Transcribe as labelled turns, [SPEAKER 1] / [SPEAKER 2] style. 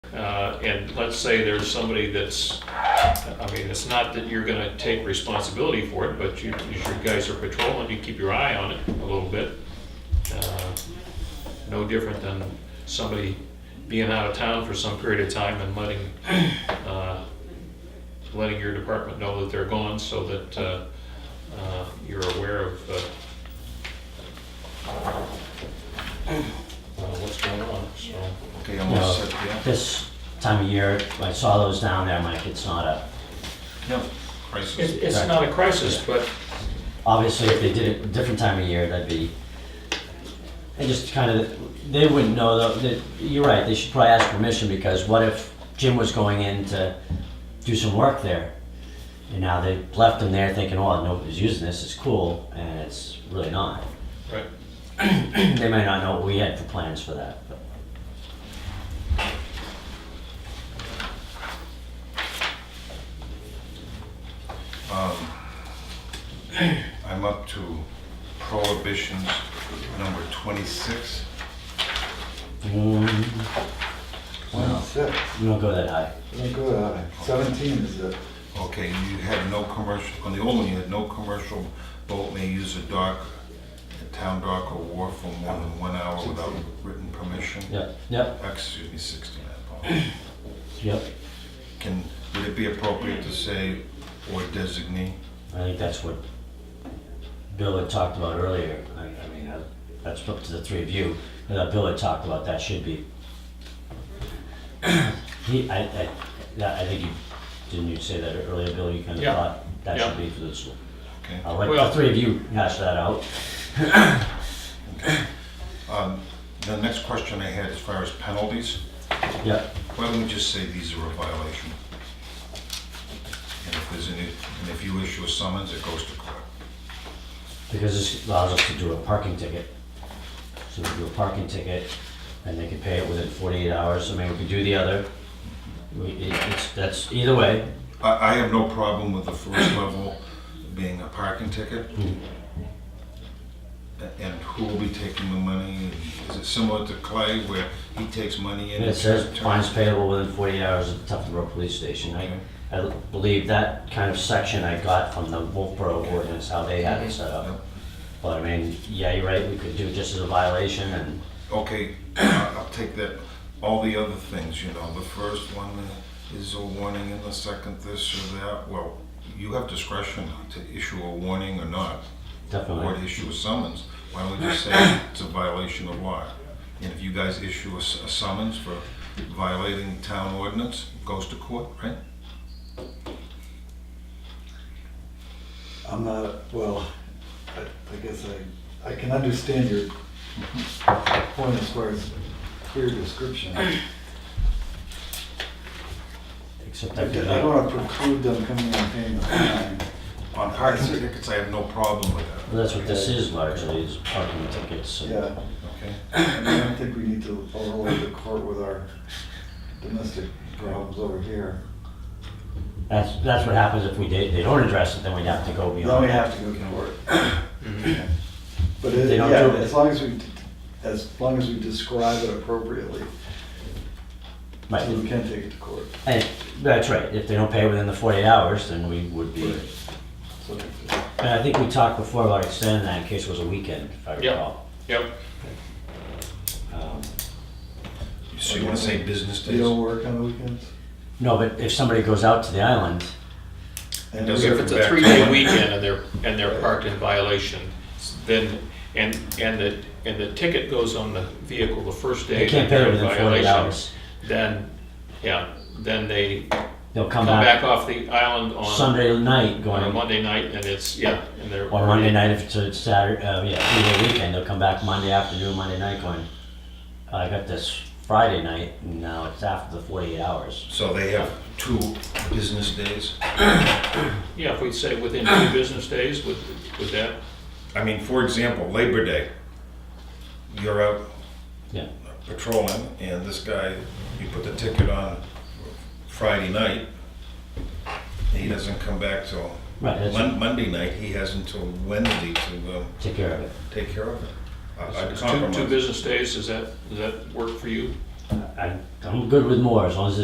[SPEAKER 1] uh, and let's say there's somebody that's, I mean, it's not that you're gonna take responsibility for it, but you, you sure guys are patrolling, you keep your eye on it a little bit. Uh, No different than somebody being out of town for some period of time and letting, uh, letting your department know that they're gone so that uh, uh, you're aware of uh, uh, what's going on, so.
[SPEAKER 2] Okay,
[SPEAKER 3] you know,
[SPEAKER 2] almost set, yeah.
[SPEAKER 3] this time of year, I saw those down there, I'm like, it's not a,
[SPEAKER 2] Yeah,
[SPEAKER 1] It's,
[SPEAKER 2] crisis.
[SPEAKER 1] it's not a crisis, but
[SPEAKER 3] obviously, if they did it a different time of year, that'd be, they just kind of, they wouldn't know, though, that, you're right, they should probably ask permission, because what if Jim was going in to do some work there? And now they left him there thinking, oh, nobody's using this, it's cool, and it's really not.
[SPEAKER 1] right,
[SPEAKER 3] They may not know what we had for plans for that, but.
[SPEAKER 2] Um, I'm up to prohibitions number 26.
[SPEAKER 3] mm,
[SPEAKER 4] Twenty-six,
[SPEAKER 3] We don't go that high.
[SPEAKER 4] don't go that high. Seventeen is the,
[SPEAKER 2] Okay, you had no commercial, on the old one, you had no commercial boat may use a dock, a town dock or wharf for more than one hour without written permission.
[SPEAKER 3] Yep, yep,
[SPEAKER 2] Excuse me, 69. Paul.
[SPEAKER 3] yep.
[SPEAKER 2] Can, would it be appropriate to say or designate?
[SPEAKER 3] I think that's what Bill had talked about earlier. I, I mean, uh, that's up to the three of you. And that Bill had talked about that should be. He, I, I, that- I think you, didn't you say that earlier, Bill? You kind of
[SPEAKER 1] Yeah.
[SPEAKER 3] thought that should
[SPEAKER 1] Yeah.
[SPEAKER 3] be for the school.
[SPEAKER 2] Okay.
[SPEAKER 3] I'll let
[SPEAKER 1] Well-
[SPEAKER 3] the three of you hash that out.
[SPEAKER 2] Um, The next question I had as far as penalties,
[SPEAKER 3] Yep,
[SPEAKER 2] why don't we just say these are a violation? And if there's any, and if you issue a summons, it goes to court.
[SPEAKER 3] because this allows us to do a parking ticket. So we do a parking ticket and they can pay it within forty-eight hours. I mean, we could do the other. We, it- it's, that's either way.
[SPEAKER 2] I, I have no problem with the first level being a parking ticket. A- And who will be taking the money? Is it similar to Clay where he takes money in?
[SPEAKER 3] And it says fines payable within 48 hours at the Tufton Road Police Station. I, I believe that kind of section I got from the Wolfboro ordinance, how they had it set
[SPEAKER 2] Yep.
[SPEAKER 3] up. But I mean, yeah, you're right, we could do it just as a violation and,
[SPEAKER 2] Okay, I- I'll take that, all the other things, you know, the first one uh, is a warning and the second this or that, well, you have discretion to issue a warning or not, or to
[SPEAKER 3] definitely.
[SPEAKER 2] issue a summons, why don't we just say it's a violation of law? And if you guys issue a s- a summons for violating town ordinance, it goes to court, right?
[SPEAKER 4] I'm not, well, I, I guess I, I can understand your point as far as clear description. I
[SPEAKER 3] Except I could,
[SPEAKER 4] don't
[SPEAKER 3] well,
[SPEAKER 4] wanna preclude them coming and paying the fine.
[SPEAKER 2] On parking tickets, I have no problem with that,
[SPEAKER 3] that's what this is largely, is parking tickets. and-
[SPEAKER 4] Yeah,
[SPEAKER 2] okay?
[SPEAKER 4] I mean, I don't think we need to overload the court with our domestic problems over here.
[SPEAKER 3] That's, that's what happens if we did, they don't address it, then we'd have to go
[SPEAKER 4] Then
[SPEAKER 3] beyond.
[SPEAKER 4] we
[SPEAKER 3] that.
[SPEAKER 4] have to go to court. Mm-hmm. But
[SPEAKER 3] They
[SPEAKER 4] it,
[SPEAKER 3] don't
[SPEAKER 4] yeah,
[SPEAKER 3] do it.
[SPEAKER 4] as long as we, as long as we describe it appropriately, so we
[SPEAKER 3] Right,
[SPEAKER 4] can take it to court.
[SPEAKER 3] and, that's right, if they don't pay within the 48 hours, then we would be.
[SPEAKER 4] So
[SPEAKER 3] And I think we talked before about extending that in case it was a weekend, if I
[SPEAKER 1] Yeah.
[SPEAKER 3] recall.
[SPEAKER 1] yep,
[SPEAKER 3] Um,
[SPEAKER 2] So you wanna say business
[SPEAKER 4] They
[SPEAKER 2] days?
[SPEAKER 4] don't work on weekends?
[SPEAKER 3] No, but if somebody goes out to the island,
[SPEAKER 4] And
[SPEAKER 2] Does
[SPEAKER 4] we're-
[SPEAKER 1] if it's a three-day weekend and they're, and they're parked in violation, then, and, and the, and the ticket goes on the vehicle the first day.
[SPEAKER 3] they can't pay
[SPEAKER 1] they're in
[SPEAKER 3] within 48
[SPEAKER 1] violation,
[SPEAKER 3] hours.
[SPEAKER 1] Then, yeah, then they
[SPEAKER 3] They'll come
[SPEAKER 1] come back
[SPEAKER 3] back
[SPEAKER 1] off the island on,
[SPEAKER 3] Sunday night
[SPEAKER 1] on a
[SPEAKER 3] going,
[SPEAKER 1] Monday night and it's, yeah, and they're.
[SPEAKER 3] or Monday night if it's a Saturday, uh, yeah, three-day weekend, they'll come back Monday afternoon, Monday night going, "Oh, I got this Friday night, and now it's after the 48 hours.
[SPEAKER 2] So they have two business days?
[SPEAKER 1] Yeah, if we say within two business days, would, would that,
[SPEAKER 2] I mean, for example, Labor Day, you're out
[SPEAKER 3] Yeah,
[SPEAKER 2] patrolling, and this guy, you put the ticket on Friday night, and he doesn't come back till
[SPEAKER 3] right, that's,
[SPEAKER 2] Mon- Monday night, he has until Wednesday to um,
[SPEAKER 3] take care of it.
[SPEAKER 2] take care of it. I- I'd
[SPEAKER 1] is two, two
[SPEAKER 2] compromise.
[SPEAKER 1] business days, does that, does that work for you?
[SPEAKER 3] I- I'm good with more, as long as